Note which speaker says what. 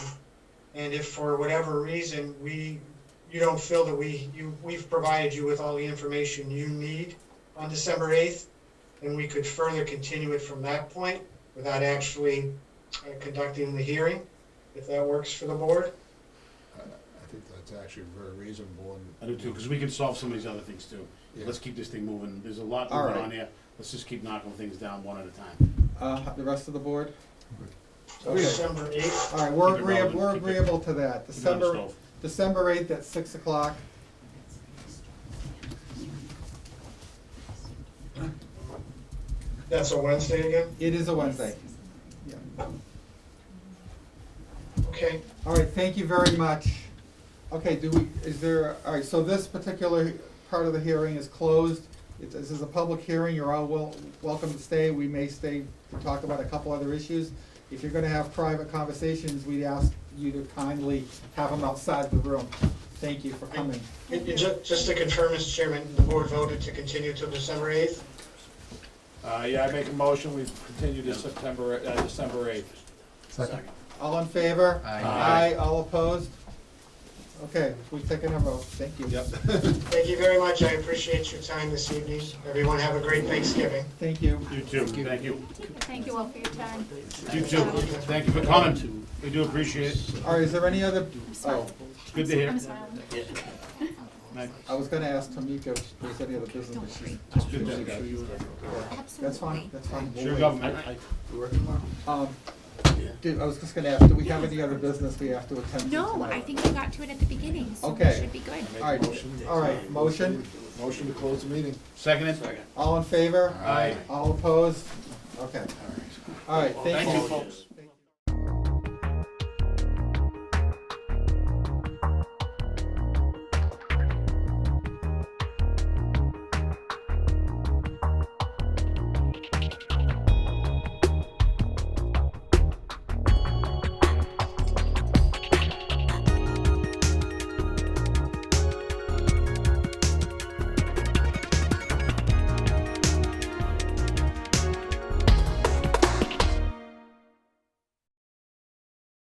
Speaker 1: And if for whatever reason, we, you don't feel that we, you, we've provided you with all the information you need on December eighth, then we could further continue it from that point without actually uh, conducting the hearing, if that works for the board.
Speaker 2: I I think that's actually very reasonable and.
Speaker 3: I do too, because we can solve some of these other things too.
Speaker 2: Yeah.
Speaker 3: Let's keep this thing moving. There's a lot
Speaker 4: All
Speaker 3: going
Speaker 4: right.
Speaker 3: on here. Let's just keep knocking things down one at a time.
Speaker 4: Uh, the rest of the board?
Speaker 1: So
Speaker 4: Okay.
Speaker 1: December eighth,
Speaker 4: All right, we're
Speaker 3: Keep it
Speaker 4: agreeable,
Speaker 3: relevant,
Speaker 4: we're
Speaker 3: keep it-
Speaker 4: agreeable to that.
Speaker 3: Keep it on the
Speaker 4: December,
Speaker 3: stove.
Speaker 4: December eighth at six o'clock.
Speaker 1: that's a Wednesday again?
Speaker 4: It is a Wednesday. Yeah.
Speaker 1: Okay,
Speaker 4: All right, thank you very much. Okay, do we, is there, all right, so this particular part of the hearing is closed. It- This is a public hearing, you're all wel- welcome to stay. We may stay to talk about a couple other issues. If you're gonna have private conversations, we'd ask you to kindly have them outside the room. Thank you for coming.
Speaker 1: And you ju- just to confirm, Mr. Chairman, the board voted to continue till December eighth?
Speaker 5: Uh, yeah, I make a motion, we continue to September, uh, December eighth.
Speaker 3: Second.
Speaker 4: All in favor?
Speaker 3: Aye.
Speaker 4: Aye, all opposed? Okay, we've taken a vote, thank you.
Speaker 5: Yep.
Speaker 1: Thank you very much, I appreciate your time this evening. Everyone have a great Thanksgiving.
Speaker 4: Thank you.
Speaker 3: You too, thank you.
Speaker 6: Thank you all for your time.
Speaker 3: You too. Thank you for coming. We do appreciate it.
Speaker 4: All right, is there any other,
Speaker 6: I'm
Speaker 4: oh,
Speaker 6: smiling.
Speaker 3: It's good to hear.
Speaker 6: I'm smiling.
Speaker 3: Nice.
Speaker 4: I was gonna ask Tamika if there's any other business, but she's.
Speaker 3: Good to
Speaker 4: she's-
Speaker 3: hear.
Speaker 4: That's fine,
Speaker 6: Absolutely.
Speaker 4: that's fine. we'll
Speaker 3: Sure
Speaker 4: wait.
Speaker 3: government.
Speaker 4: Um, did, I was just gonna ask, do we have any other business we have to attend to
Speaker 6: No,
Speaker 4: tonight?
Speaker 6: I think we got to it at the beginning, so we
Speaker 4: Okay.
Speaker 6: should be good.
Speaker 2: Make a
Speaker 4: All right,
Speaker 2: motion.
Speaker 4: all right, motion,
Speaker 2: Motion to close the meeting.
Speaker 3: Seconded?
Speaker 4: all in favor?
Speaker 3: Aye.
Speaker 4: All opposed? Okay. All right,
Speaker 3: Thank you,
Speaker 4: thank you.
Speaker 3: folks.